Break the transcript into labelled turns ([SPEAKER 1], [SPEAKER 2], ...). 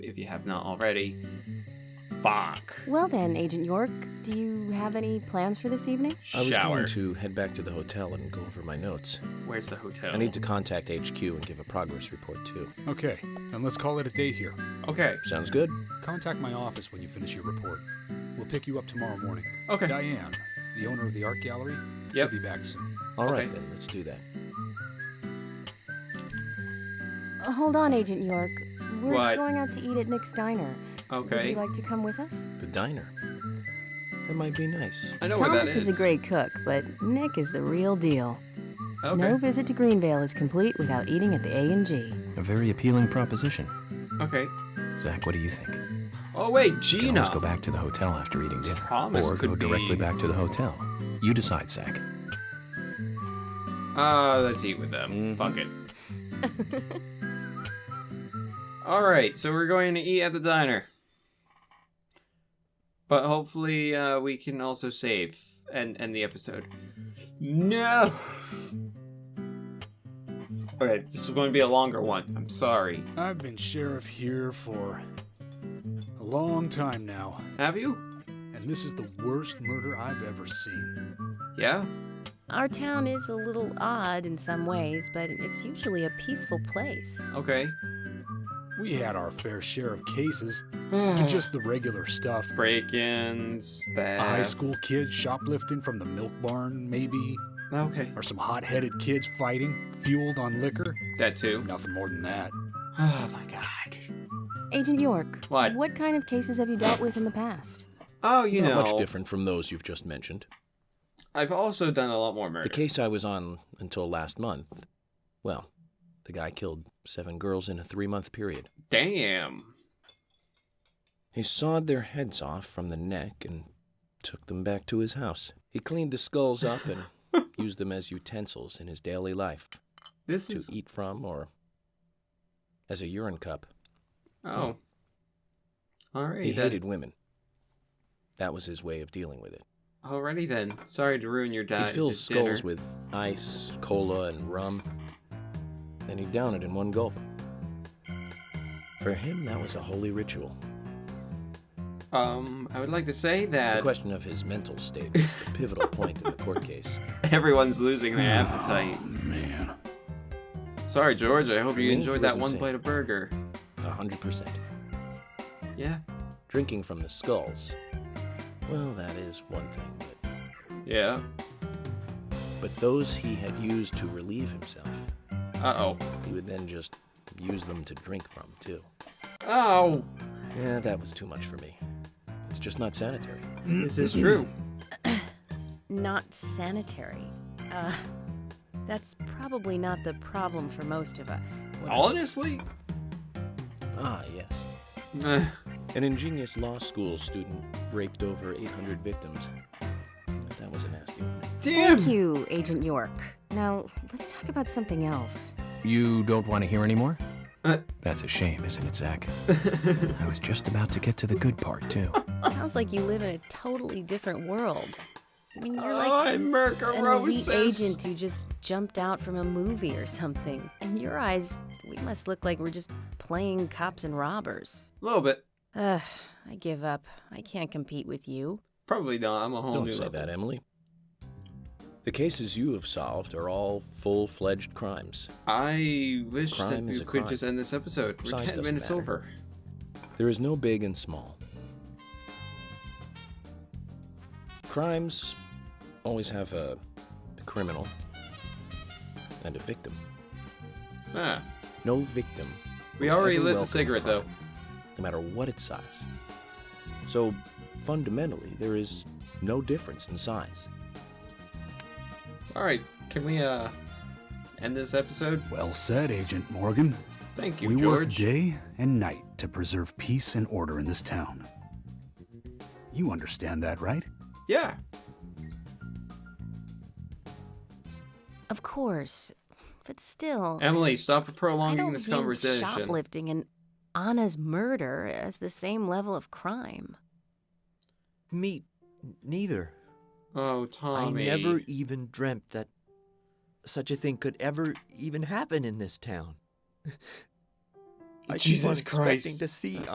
[SPEAKER 1] if you have not already. Fuck.
[SPEAKER 2] Well then, Agent York, do you have any plans for this evening?
[SPEAKER 3] I was
[SPEAKER 1] Shower.
[SPEAKER 3] going to head back to the hotel and go over my notes.
[SPEAKER 1] Where's the hotel?
[SPEAKER 3] I need to contact HQ and give a progress report too.
[SPEAKER 4] Okay, then let's call it a day here.
[SPEAKER 1] Okay.
[SPEAKER 3] Sounds good.
[SPEAKER 4] Contact my office when you finish your report. We'll pick you up tomorrow morning.
[SPEAKER 1] Okay.
[SPEAKER 4] Diane, the owner of the art gallery,
[SPEAKER 1] Yep.
[SPEAKER 4] should be back soon.
[SPEAKER 3] All right
[SPEAKER 1] Okay.
[SPEAKER 3] then, let's do that.
[SPEAKER 2] Uh, Hold on, Agent York. We're
[SPEAKER 1] What?
[SPEAKER 2] going out to eat at Nick's Diner. Would
[SPEAKER 1] Okay.
[SPEAKER 2] you like to come with us?
[SPEAKER 3] The diner. That might be nice.
[SPEAKER 1] I know where that
[SPEAKER 2] Thomas
[SPEAKER 1] is.
[SPEAKER 2] is a great cook, but Nick is the real deal.
[SPEAKER 1] Okay.
[SPEAKER 2] No visit to Greenvale is complete without eating at the A and G.
[SPEAKER 5] A very appealing proposition.
[SPEAKER 1] Okay.
[SPEAKER 5] Zach, what do you think?
[SPEAKER 1] Oh wait,
[SPEAKER 5] You can
[SPEAKER 1] Gina.
[SPEAKER 5] always go back to the hotel after eating dinner.
[SPEAKER 1] Thomas
[SPEAKER 5] or go
[SPEAKER 1] could be-
[SPEAKER 5] directly back to the hotel. You decide, Zach.
[SPEAKER 1] Uh, let's eat with them. Fuck it. All right, so we're going to eat at the diner, but hopefully uh, we can also save and end the episode. No. Okay, this is going to be a longer one. I'm sorry.
[SPEAKER 4] I've been sheriff here for a long time now,
[SPEAKER 1] Have you?
[SPEAKER 4] and this is the worst murder I've ever seen.
[SPEAKER 1] Yeah.
[SPEAKER 2] Our town is a little odd in some ways, but it's usually a peaceful place.
[SPEAKER 1] Okay.
[SPEAKER 4] We had our fair share of cases,
[SPEAKER 1] Mm.
[SPEAKER 4] and just the regular stuff.
[SPEAKER 1] break-ins. That.
[SPEAKER 4] A high school kid shoplifting from the milk barn, maybe,
[SPEAKER 1] Okay.
[SPEAKER 4] or some hot headed kids fighting, fueled on liquor.
[SPEAKER 1] That too.
[SPEAKER 4] Nothing more than that.
[SPEAKER 1] Oh my god.
[SPEAKER 2] Agent York,
[SPEAKER 1] What?
[SPEAKER 2] What kind of cases have you dealt with in the past?
[SPEAKER 1] Oh, you
[SPEAKER 3] Not
[SPEAKER 1] know.
[SPEAKER 3] much different from those you've just mentioned.
[SPEAKER 1] I've also done a lot more murder.
[SPEAKER 3] The case I was on until last month. Well, the guy killed seven girls in a three month period.
[SPEAKER 1] Damn.
[SPEAKER 3] He sawed their heads off from the neck and took them back to his house. He cleaned the skulls up and used them as utensils in his daily life
[SPEAKER 1] This
[SPEAKER 3] to
[SPEAKER 1] is
[SPEAKER 3] eat from or as a urine cup.
[SPEAKER 1] oh. Alrighty
[SPEAKER 3] He
[SPEAKER 1] then.
[SPEAKER 3] hated women. That was his way of dealing with it.
[SPEAKER 1] Alrighty then. Sorry to ruin your
[SPEAKER 3] He'd
[SPEAKER 1] diet.
[SPEAKER 3] fill skulls with ice, cola, and rum, and he'd down it in one gulp. For him, that was a holy ritual.
[SPEAKER 1] Um, I would like to say
[SPEAKER 3] The
[SPEAKER 1] that
[SPEAKER 3] question of his mental state was the pivotal point in the court case.
[SPEAKER 1] everyone's losing their appetite.
[SPEAKER 4] Man.
[SPEAKER 1] Sorry, George. I hope you
[SPEAKER 3] Me?
[SPEAKER 1] enjoyed
[SPEAKER 3] It
[SPEAKER 1] that
[SPEAKER 3] was
[SPEAKER 1] one
[SPEAKER 3] insane.
[SPEAKER 1] plate of burger.
[SPEAKER 3] A hundred percent.
[SPEAKER 1] Yeah.
[SPEAKER 3] Drinking from the skulls. Well, that is one thing, but,
[SPEAKER 1] Yeah.
[SPEAKER 3] but those he had used to relieve himself,
[SPEAKER 1] Uh oh.
[SPEAKER 3] he would then just use them to drink from, too.
[SPEAKER 1] Oh.
[SPEAKER 3] Yeah, that was too much for me. It's just not sanitary.
[SPEAKER 1] This is true.
[SPEAKER 2] Not sanitary. Uh, that's probably not the problem for most of us.
[SPEAKER 3] What else?
[SPEAKER 1] Honestly.
[SPEAKER 3] Ah, yes.
[SPEAKER 1] Eh.
[SPEAKER 3] An ingenious law school student raped over 800 victims. That was a nasty one.
[SPEAKER 2] Thank
[SPEAKER 1] Damn.
[SPEAKER 2] you, Agent York. Now, let's talk about something else.
[SPEAKER 5] You don't want to hear anymore?
[SPEAKER 1] Uh.
[SPEAKER 5] That's a shame, isn't it, Zach? I was just about to get to the good part, too.
[SPEAKER 2] Sounds like you live in a totally different world. I mean, you're like
[SPEAKER 1] I'm
[SPEAKER 2] an elite
[SPEAKER 1] Mercarosis.
[SPEAKER 2] agent who just jumped out from a movie or something. In your eyes, we must look like we're just playing cops and robbers.
[SPEAKER 1] A little bit.
[SPEAKER 2] Ugh, I give up. I can't compete with you.
[SPEAKER 1] Probably not. I'm a whole
[SPEAKER 3] Don't
[SPEAKER 1] new
[SPEAKER 3] say
[SPEAKER 1] level.
[SPEAKER 3] that, Oh, Emily. The cases you have solved are all full fledged crimes.
[SPEAKER 1] I wish
[SPEAKER 3] Crime
[SPEAKER 1] that
[SPEAKER 3] is
[SPEAKER 1] you
[SPEAKER 3] a
[SPEAKER 1] could
[SPEAKER 3] crime.
[SPEAKER 1] just end this episode. We're
[SPEAKER 3] Size
[SPEAKER 1] 10
[SPEAKER 3] doesn't
[SPEAKER 1] minutes
[SPEAKER 3] matter.
[SPEAKER 1] over.
[SPEAKER 3] There is no big and small. Crimes always have a, a criminal and a victim.
[SPEAKER 1] Ah.
[SPEAKER 3] No victim.
[SPEAKER 1] We
[SPEAKER 3] will
[SPEAKER 1] already
[SPEAKER 3] ever
[SPEAKER 1] lit the
[SPEAKER 3] welcome
[SPEAKER 1] cigarette, though.
[SPEAKER 3] crime, No matter what its size. So fundamentally, there is no difference in size.
[SPEAKER 1] All right, can we uh end this episode?
[SPEAKER 4] Well said, Agent Morgan.
[SPEAKER 1] Thank you,
[SPEAKER 4] we work
[SPEAKER 1] George.
[SPEAKER 4] day and night to preserve peace and order in this town. You understand that, right?
[SPEAKER 1] yeah.
[SPEAKER 2] Of course, but still,
[SPEAKER 1] Emily, stop
[SPEAKER 2] I
[SPEAKER 1] prolonging
[SPEAKER 2] don't
[SPEAKER 1] this
[SPEAKER 2] view
[SPEAKER 1] conversation.
[SPEAKER 2] shoplifting and Anna's murder as the same level of crime.
[SPEAKER 6] Me neither.
[SPEAKER 1] Oh, Tommy.
[SPEAKER 6] I never even dreamt that such a thing could ever even happen in this town. I keep on
[SPEAKER 1] Jesus
[SPEAKER 6] expecting
[SPEAKER 1] Christ.
[SPEAKER 6] to see